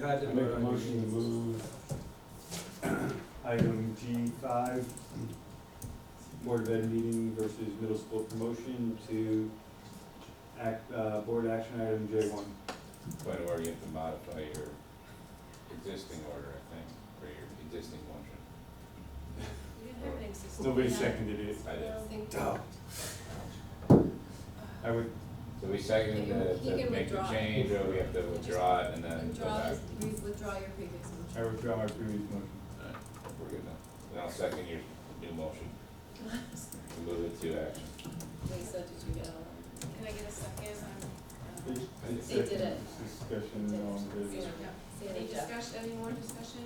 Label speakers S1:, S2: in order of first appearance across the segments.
S1: had
S2: I
S1: it.
S2: make a motion to move item G five, Board of Ed meeting versus middle school promotion to act, uh, board action item J one.
S3: But or you have to modify your existing order, I think, or your existing motion.
S4: You didn't have an existing.
S2: Nobody
S4: yeah.
S2: seconded it.
S3: I did.
S4: Think-
S2: Duh. I would,
S3: So we second the,
S4: You
S3: to
S4: can
S3: make the
S4: withdraw.
S3: change, or we have to withdraw it and then go
S4: Withdraw,
S3: back?
S4: re- withdraw your previous motion.
S2: I withdraw my previous motion.
S3: Alright, We're good now. Then I'll second your new motion, move it to action.
S4: Lisa, did you get all that? Can I get a second?
S2: It's- it's
S4: They did it.
S2: Discussion on this.
S4: Um, Any discussion, any more discussion,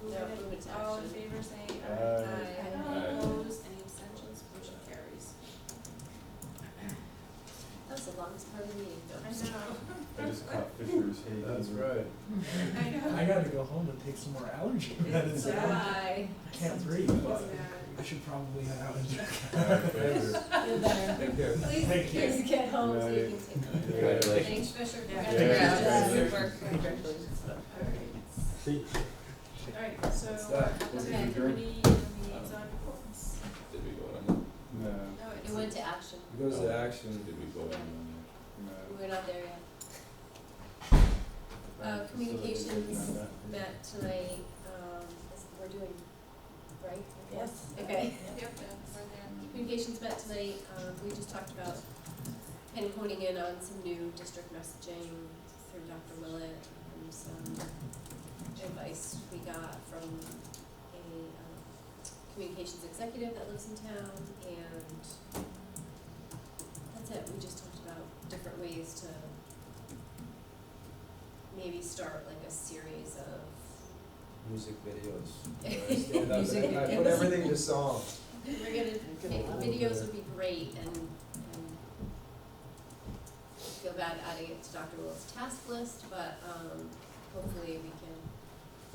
S4: we'll just move it, all in favor, say aye.
S3: Aye. Aye.
S4: Opposed, any abstentions, motion carries. That was the longest part of the meeting, though. I
S2: I just caught Fisher's hate.
S4: know, I
S5: I gotta go home and take some more allergy medicine. I
S4: Bye.
S5: can't breathe, but I should probably have allergy.
S4: You're better.
S2: Thank you.
S4: Please,
S5: Thank you.
S4: please get home so you can take. Thanks,
S3: Congratulations.
S4: Fisher.
S2: Yeah.
S4: Congratulations.
S2: Yeah.
S4: Congratulations.
S6: Alright, so
S2: What's
S6: uh,
S2: that? What's
S6: okay,
S2: it,
S6: everybody liaison reports.
S3: Did we vote on
S2: No,
S6: No, it's.
S4: It went to action.
S1: It goes to
S3: that?
S1: action.
S3: Did we vote on
S2: no.
S4: We're not there yet. Uh, communications met tonight, um, is- we're doing, right? Yes. Okay.
S6: Yep, that's where they're.
S4: Communications met tonight, um, we just talked about kind of honing in on some new district messaging through Dr. Willett and some advice we got from a, um, communications executive that lives in town and that's it, we just talked about different ways to maybe start like a series of
S1: Music videos. Stand up
S4: Music
S1: and I put
S4: videos.
S1: everything to song.
S4: We're gonna, make- videos would be great and, and I feel bad adding it to Dr. Will's task list, but, um, hopefully we can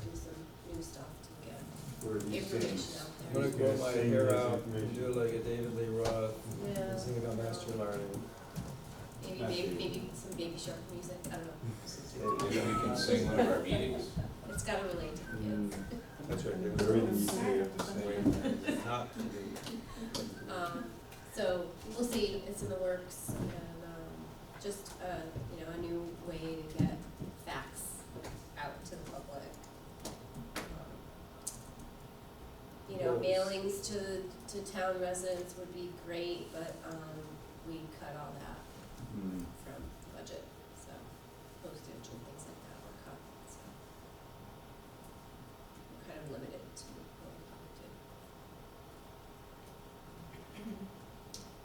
S4: do some new stuff to get information
S1: I'm
S4: out there.
S1: gonna grow my
S2: Sing
S1: hair
S2: this
S1: out and do
S2: information.
S1: like a David Lee Roth,
S4: Yeah.
S1: and sing about master learning.
S4: Maybe, maybe, maybe some baby shark music, I don't know,
S3: that? Maybe we can sing one of our meetings.
S4: it's gotta relate to kids.
S1: That's right, David Lee
S2: Everything you
S1: Roth.
S2: say, you have to say.
S1: Not to be.
S4: Um, so we'll see, it's in the works and, um, just, uh, you know, a new way to get facts out to the public. Um, You know,
S1: Yes.
S4: mailings to, to town residents would be great, but, um, we cut all that
S2: Mm.
S4: from the budget, so postage and things like that were cut, so. We're kind of limited to what we can do.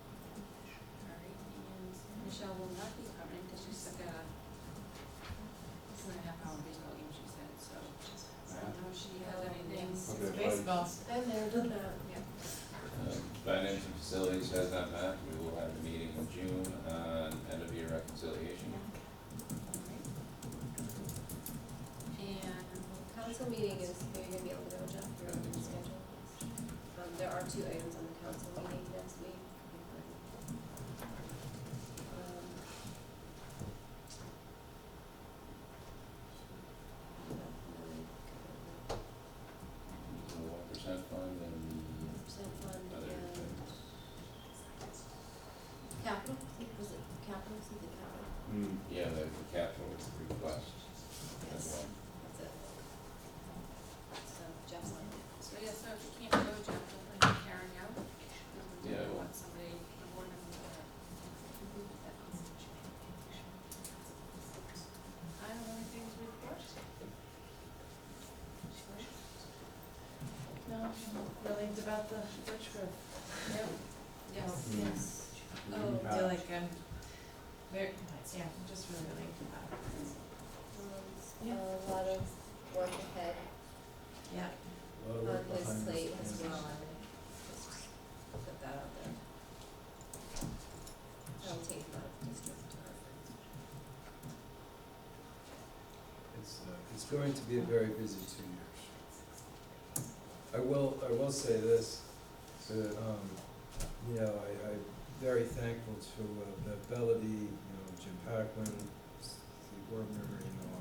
S6: Alright, and Michelle will not be coming because she's stuck at a, two and a half hour baseball game, she said, so. I don't know if she has anything.
S2: Okay, bye. Baseball.
S4: Been there, done that.
S3: Um, Finance and facilities has not met, we will have a meeting in June on end of year reconciliation.
S4: And council meeting is, are you gonna be able to go, Jeff, your own schedule? Um, there are two items on the council meeting next week. Um,
S3: One percent fund and
S4: Percent fund and
S3: other things.
S4: capital, was it capital, something capital,
S2: Mm.
S3: Yeah, the the capital request as
S4: yes,
S3: well.
S4: that's it. So Jeff's on it.
S6: So yeah, so if you can't go, Jeff, we'll bring Karen out. because we
S3: Yeah, I will.
S6: Want somebody, a board member there. I don't know anything to report. No, feelings about the Dutch group. Yep. Yes.
S2: Mm.
S4: Yes. Oh,
S6: I feel like I'm very, yeah, just really relieved about it.
S4: Um, A lot of work ahead
S6: Yeah.
S2: A lot of
S4: on
S2: work
S4: his
S2: behind the
S4: slate as
S2: scenes.
S4: well, I would just put that out there. That'll take him out of district.
S1: It's, uh, it's going to be a very busy two years. I will, I will say this, that, um, you know, I, I'm very thankful to, uh, the Bellady, you know, Jim Paquin, Steve Wormer, you know,